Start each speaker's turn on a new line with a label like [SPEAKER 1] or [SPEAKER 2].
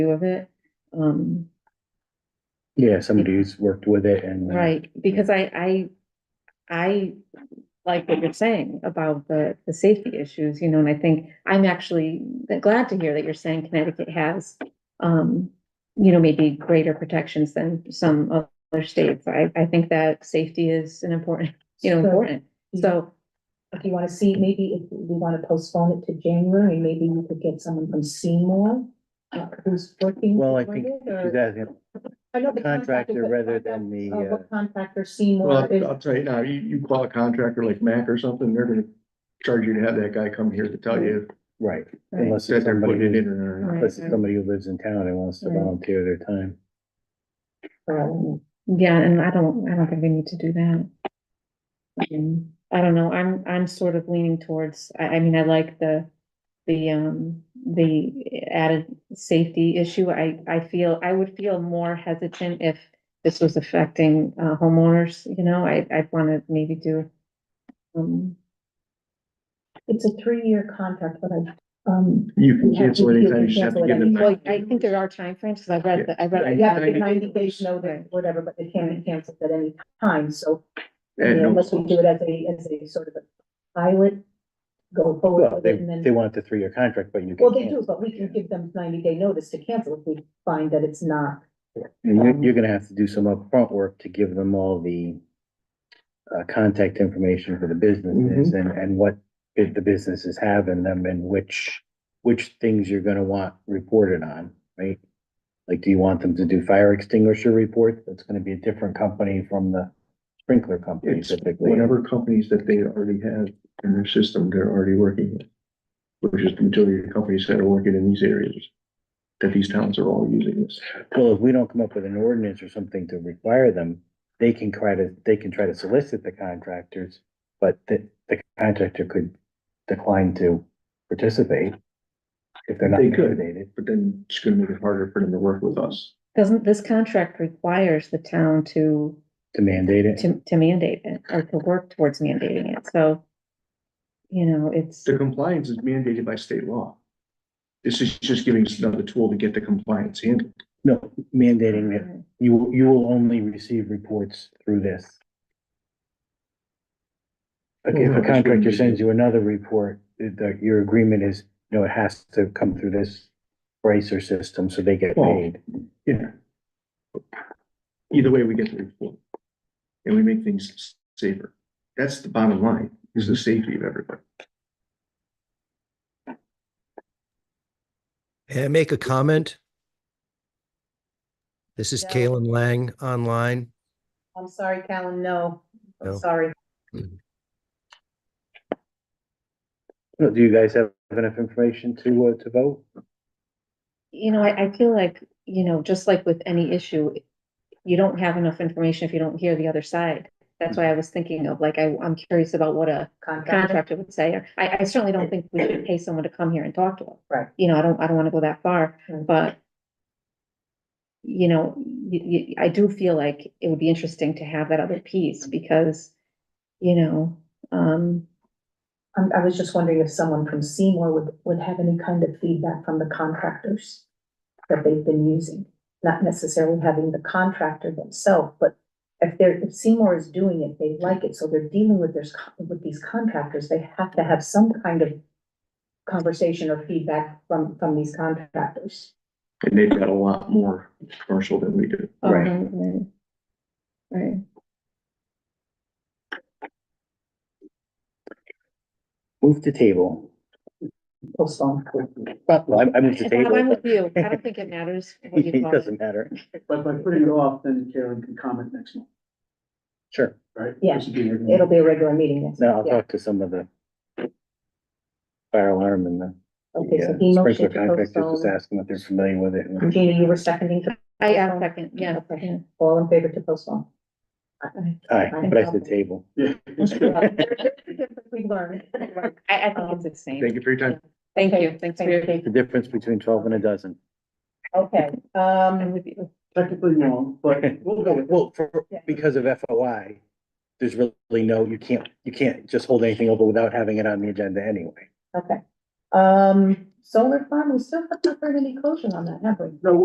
[SPEAKER 1] view of it. Um,
[SPEAKER 2] Yeah, somebody who's worked with it and. uh,
[SPEAKER 1] right, because I, I, I like what you're saying about the, the safety issues, you know, and I think I'm actually glad to hear that you're saying Connecticut has, um, you know, maybe greater protections than some other states. I, I think that safety is an important, you know,
[SPEAKER 3] So-
[SPEAKER 1] important. So,
[SPEAKER 3] If you wanna see, maybe if we wanna postpone it to January, maybe we could get someone from Seymour. uh, Who's working.
[SPEAKER 2] Well, I
[SPEAKER 3] with
[SPEAKER 2] think
[SPEAKER 3] it, or-
[SPEAKER 2] she's asking
[SPEAKER 3] I know the
[SPEAKER 2] contractor
[SPEAKER 3] but
[SPEAKER 2] rather
[SPEAKER 3] I
[SPEAKER 2] than
[SPEAKER 3] don't
[SPEAKER 2] the,
[SPEAKER 3] know
[SPEAKER 2] uh,
[SPEAKER 3] What contractor
[SPEAKER 4] Well,
[SPEAKER 3] Seymour is,
[SPEAKER 4] I'll- I'll tell you now, you, you call a contractor like Mac or something, they're gonna charge you to have that guy come here to tell you
[SPEAKER 2] right,
[SPEAKER 1] Right.
[SPEAKER 2] unless
[SPEAKER 4] that
[SPEAKER 2] it's
[SPEAKER 4] they're putting it
[SPEAKER 2] somebody,
[SPEAKER 4] in
[SPEAKER 2] who-
[SPEAKER 4] or not.
[SPEAKER 1] Right.
[SPEAKER 2] unless it's somebody who lives in town and wants to
[SPEAKER 3] Right.
[SPEAKER 2] volunteer their time.
[SPEAKER 3] um,
[SPEAKER 1] yeah, and I don't, I don't think we need to do that. Um, I don't know, I'm, I'm sort of leaning towards, I, I mean, I like the, the, um, the added safety issue. I, I feel, I would feel more hesitant if this was affecting, uh, homeowners, you know, I, I'd wanna maybe do. Um,
[SPEAKER 3] it's a three-year contract, but I, um,
[SPEAKER 4] You can
[SPEAKER 3] You have
[SPEAKER 4] cancel
[SPEAKER 3] to- you
[SPEAKER 4] anytime, you
[SPEAKER 3] can
[SPEAKER 4] just have to
[SPEAKER 3] cancel
[SPEAKER 4] give
[SPEAKER 3] it
[SPEAKER 4] them.
[SPEAKER 1] well,
[SPEAKER 4] back.
[SPEAKER 1] I think there are timeframes, cause I read, the I read.
[SPEAKER 3] yeah,
[SPEAKER 4] Ninety-
[SPEAKER 3] ninety days notice, whatever, but they can be canceled at any time, so.
[SPEAKER 2] Uh,
[SPEAKER 3] you
[SPEAKER 4] And
[SPEAKER 3] know,
[SPEAKER 4] no-
[SPEAKER 3] Unless we do it as a, as a sort of a pilot, go forward
[SPEAKER 2] Well,
[SPEAKER 3] with
[SPEAKER 2] they,
[SPEAKER 3] it and then.
[SPEAKER 2] they want the three-year contract, but you.
[SPEAKER 3] Well,
[SPEAKER 2] can
[SPEAKER 3] they do, but we can give them ninety day notice to cancel if we find that it's not.
[SPEAKER 2] And
[SPEAKER 4] Um,
[SPEAKER 2] you're, you're gonna have to do some upfront work to give them all the uh, contact information for the businesses
[SPEAKER 4] Mm-hmm.
[SPEAKER 2] and, and what the the businesses have in them and which, which things you're gonna want reported on, right? Like, do you want them to do fire extinguisher reports? That's gonna be a different company from the sprinkler company
[SPEAKER 4] It's
[SPEAKER 2] typically.
[SPEAKER 4] whatever companies that they already have in their system, they're already working with. Which is the majority of the companies that are working in these areas, that these towns are all using this.
[SPEAKER 2] Well, if we don't come up with an ordinance or something to require them, they can try to, they can try to solicit the contractors, but the, the contractor could decline to participate if they're not
[SPEAKER 4] They could.
[SPEAKER 2] mandated.
[SPEAKER 4] But then it's gonna make it harder for them to work with us.
[SPEAKER 1] Doesn't, this contract requires the town to
[SPEAKER 2] To mandate it.
[SPEAKER 1] to, to mandate it or to work towards mandating it, so. You know, it's,
[SPEAKER 4] The compliance is mandated by state law. This is just giving us another tool to get the compliance handled.
[SPEAKER 2] No, mandating that you, will- you will only receive reports through this. Like,
[SPEAKER 4] Well,
[SPEAKER 2] if
[SPEAKER 4] no,
[SPEAKER 2] a
[SPEAKER 4] that's what
[SPEAKER 2] contractor
[SPEAKER 4] you-
[SPEAKER 2] sends you another report, that your agreement is, you know, it has to come through this bracer system, so they get
[SPEAKER 4] Well,
[SPEAKER 2] paid.
[SPEAKER 4] Yeah. Either way, we get the report. And we make things safer. That's the bottom line, is the safety of everybody.
[SPEAKER 5] May I make a comment? This is
[SPEAKER 3] Yeah.
[SPEAKER 5] Kalen Lang online.
[SPEAKER 3] I'm sorry, Callan, no, I'm
[SPEAKER 5] No.
[SPEAKER 3] sorry.
[SPEAKER 2] Well, Do you guys have enough information to, uh, to vote?
[SPEAKER 1] you know, I, I feel like, you know, just like with any issue. You don't have enough information if you don't hear the other side. That's why I was thinking of, like, I, I'm curious about what a
[SPEAKER 3] Contract,
[SPEAKER 1] contractor would say. I, I certainly don't think we should pay someone to come here and talk to us.
[SPEAKER 3] Right.
[SPEAKER 1] You know, I don't, I don't wanna go that far,
[SPEAKER 3] Right.
[SPEAKER 1] but. You know, you, you, I do feel like it would be interesting to have that other piece because, you know, um,
[SPEAKER 3] I, I was just wondering if someone from Seymour would, would have any kind of feedback from the contractors that they've been using, not necessarily having the contractor themselves, but if they're, if Seymour is doing it, they like it, so they're dealing with their, s- with these contractors, they have to have some kind of conversation or feedback from, from these contractors.
[SPEAKER 4] And they've got a lot more commercial than we do.
[SPEAKER 2] Right.
[SPEAKER 1] um, Right.
[SPEAKER 2] Move to table.
[SPEAKER 3] postpone.
[SPEAKER 2] Well, I, I moved to
[SPEAKER 1] Bob,
[SPEAKER 2] table.
[SPEAKER 1] I'm with you. I don't think it matters what you
[SPEAKER 2] It
[SPEAKER 1] call it.
[SPEAKER 2] doesn't matter.
[SPEAKER 6] But by putting it off, then Karen can comment next month,
[SPEAKER 2] Sure.
[SPEAKER 6] right?
[SPEAKER 3] Yeah.
[SPEAKER 6] This would be her-
[SPEAKER 3] It'll be a regular meeting next.
[SPEAKER 2] Now I'll
[SPEAKER 3] yeah.
[SPEAKER 2] talk to some of the fire alarm and the
[SPEAKER 3] Okay, so
[SPEAKER 2] the,
[SPEAKER 3] he
[SPEAKER 2] uh, sprinkler
[SPEAKER 3] motioned to
[SPEAKER 2] contractors, just
[SPEAKER 3] postpone.
[SPEAKER 2] ask them if they're familiar with it. and-
[SPEAKER 3] Gina, you were seconding to,
[SPEAKER 1] I, I second, yeah,
[SPEAKER 3] Okay.
[SPEAKER 1] yeah.
[SPEAKER 3] all in favor to postpone.
[SPEAKER 2] Aye, but I said table.
[SPEAKER 6] Yeah. it's good.
[SPEAKER 3] We learned.
[SPEAKER 1] I, I think it's the
[SPEAKER 4] Thank
[SPEAKER 1] same.
[SPEAKER 4] you for your time.
[SPEAKER 1] Thank you, thanks for your,
[SPEAKER 2] The difference between twelve and a dozen.
[SPEAKER 3] Okay,
[SPEAKER 1] I'm
[SPEAKER 3] um,
[SPEAKER 1] with you.
[SPEAKER 6] Technically wrong, but we'll go with it.
[SPEAKER 2] Well, for, because of FOI, there's really no, you can't, you can't just hold anything over without having it on the agenda anyway.
[SPEAKER 3] okay, Um, solar farm, we still haven't heard any closure on that, have we?
[SPEAKER 6] No,